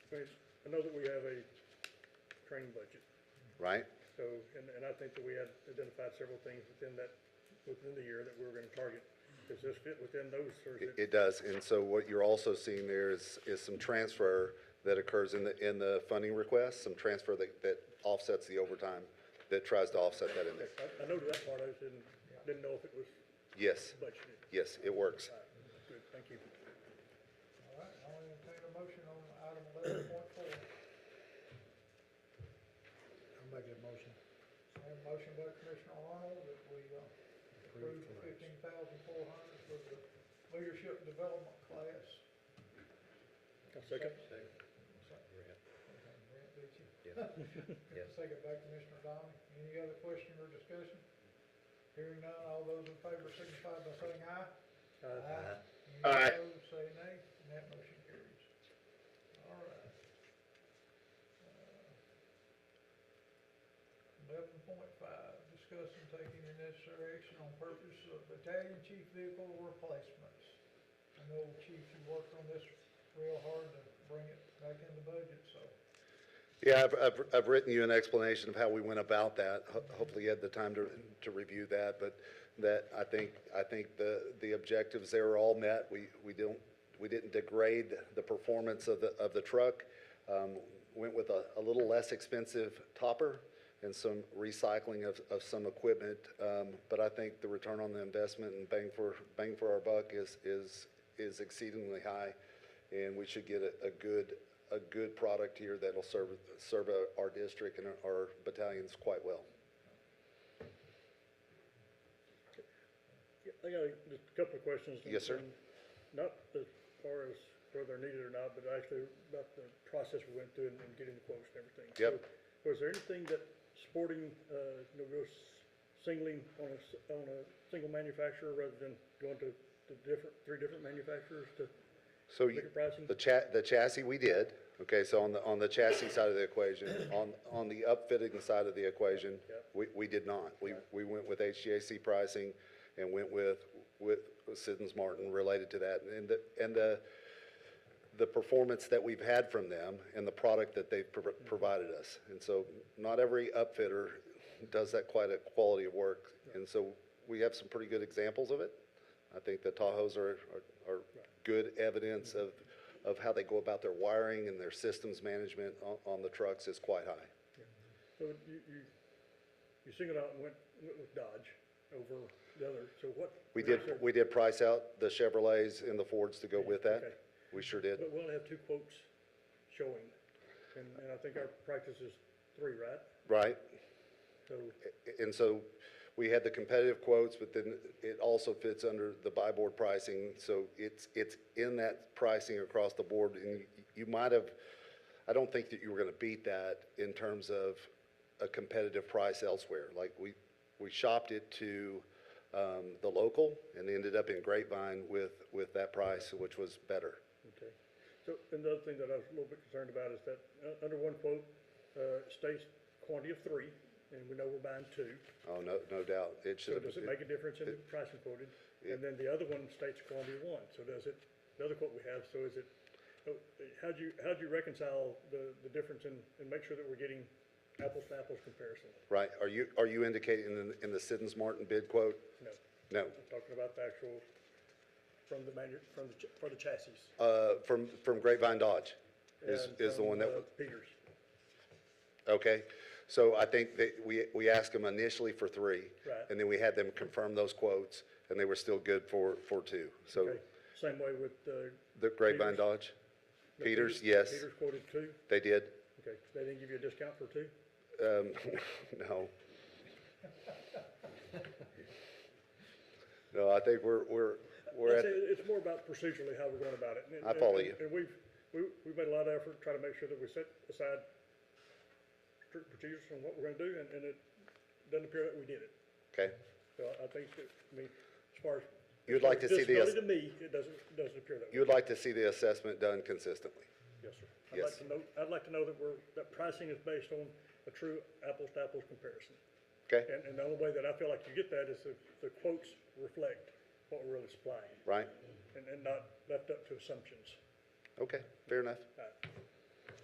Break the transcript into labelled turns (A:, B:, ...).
A: I mean, I know that we have a training budget,
B: right?
A: so, and, and I think that we had identified several things within that, within the year that we were gonna target. Does this fit within those, or is
B: It-
A: it,
B: It does, and so what you're also seeing there is, is some transfer that occurs in the, in the funding request, some transfer that, that offsets the overtime, that tries to offset that in there.
A: I, I know that part, I just didn't, didn't know if it was
B: Yes,
A: budgeted.
B: yes, it works.
A: All right, Good, thank you.
C: All right, I'll entertain a motion on item eleven point four.
D: I'll make a motion.
C: motion by Commissioner Arnold that we uh, approve the fifteen thousand four hundred for the leadership development class.
A: I'll second.
C: Second. Okay, Brent beat you. Second by Commissioner Downey. Any other question or discussion? Hearing none, all those in favor signify by saying aye.
A: Uh,
C: Aye. Any
B: Aye.
C: opposed, say nay, and that motion carries. All right. Uh, Eleven point five, discuss and take any necessary action on purchase of battalion chief vehicle replacements. I know Chief, you worked on this real hard to bring it back in the budget, so.
B: Yeah, I've, I've, I've written you an explanation of how we went about that. Ho- Hopefully you had the time to, to review that, but that, I think, I think the, the objectives there are all met. We, we don't, we didn't degrade the performance of the, of the truck. Um, went with a, a little less expensive topper and some recycling of, of some equipment. Um, but I think the return on the investment and bang for, bang for our buck is, is, is exceedingly high. And we should get a, a good, a good product here that'll serve, serve our- our district and our battalions quite well.
A: I got a- just a couple of questions.
B: Yes, sir.
A: And Not as far as whether they're needed or not, but actually about the process we went through and and getting the quotes and everything.
B: Yep.
A: So, Was there anything that sporting, uh, you know, real s- singling on a, s- on a single manufacturer rather than going to, to different, three different manufacturers to,
B: So
A: Look
B: you-
A: at pricing.
B: the cha, the chassis we did, okay, so on the, on the chassis side of the equation, on, on the upfitting side of the equation,
A: Yeah.
B: we, we did not. We, we went with HGAC pricing and went with, with Siddons Martin related to that. And the, and the, the performance that we've had from them and the product that they've prov-
A: Mm-hmm.
B: provided us. And so not every upfitter does that quite a quality of work. And so we have some pretty good examples of it. I think the Tahoes are, are- are good evidence of, of how they go about their wiring and their systems management on, on the trucks is quite high.
A: so you, you, you singled out and went, went with Dodge over the other, so what?
B: We did, we did price out the Chevrolets and the Fords to go with
A: Okay.
B: that. We sure did.
A: But we'll have two quotes showing, and, and I think our practice is three, right?
B: Right?
A: So,
B: And so we had the competitive quotes, but then it also fits under the buy board pricing. So it's, it's in that pricing across the board. And you- you might have, I don't think that you were going to beat that in terms of a competitive price elsewhere. Like we, we shopped it to um, the local and ended up in Grapevine with, with that price, which was better.
A: okay. So, and the other thing that I was a little bit concerned about is that, uh, under one quote, uh, states quantity of three, and we know we're buying two.
B: Oh, no, no doubt. It should
A: So
B: have.
A: does it make a difference in the pricing quoted? And then the other one states quantity of one, so does it, the other quote we have, so is it, so, uh, how'd you, how'd you reconcile the, the difference and, and make sure that we're getting apples to apples comparison?
B: Right. Are you, are you indicating in, in the Siddons Martin bid quote?
A: No.
B: No.
A: I'm talking about the actual, from the manu, from the, ch- for the chassis.
B: Uh, from, from Grapevine Dodge is,
A: and
B: is the
A: from,
B: one that,
A: uh,
B: w-
A: Peters.
B: okay? So I think that we, we asked them initially for three.
A: Right.
B: And then we had them confirm those quotes, and they were still good for, for two. So
A: Okay, same way with, uh.
B: the Grapevine
A: Peters.
B: Dodge,
A: No,
B: Peters, yes,
A: Peters quoted two,
B: they did.
A: okay, they didn't give you a discount for two?
B: Um, no. No, I think we're, we're, we're
A: I'd
B: at,
A: say It's more about procedurally how we're going about it. and-
B: I follow
A: and-
B: you.
A: And we've, we, we've made a lot of effort trying to make sure that we set aside strict procedures on what we're gonna do, and, and it doesn't appear that we did it.
B: okay.
A: So I- I think that, I mean, as far as.
B: You'd like to see the-
A: Disability to me, it doesn't, doesn't appear that way.
B: You would like to see the assessment done consistently.
A: Yes, sir. I'd like
B: Yes.
A: to know, I'd like to know that we're, that pricing is based on a true apples-to-apples comparison.
B: Okay?
A: And, and the only way that I feel like you get that is if the quotes reflect what we're really supplying,
B: Right?
A: and, and not left up to assumptions.
B: Okay, fair enough.
A: All right.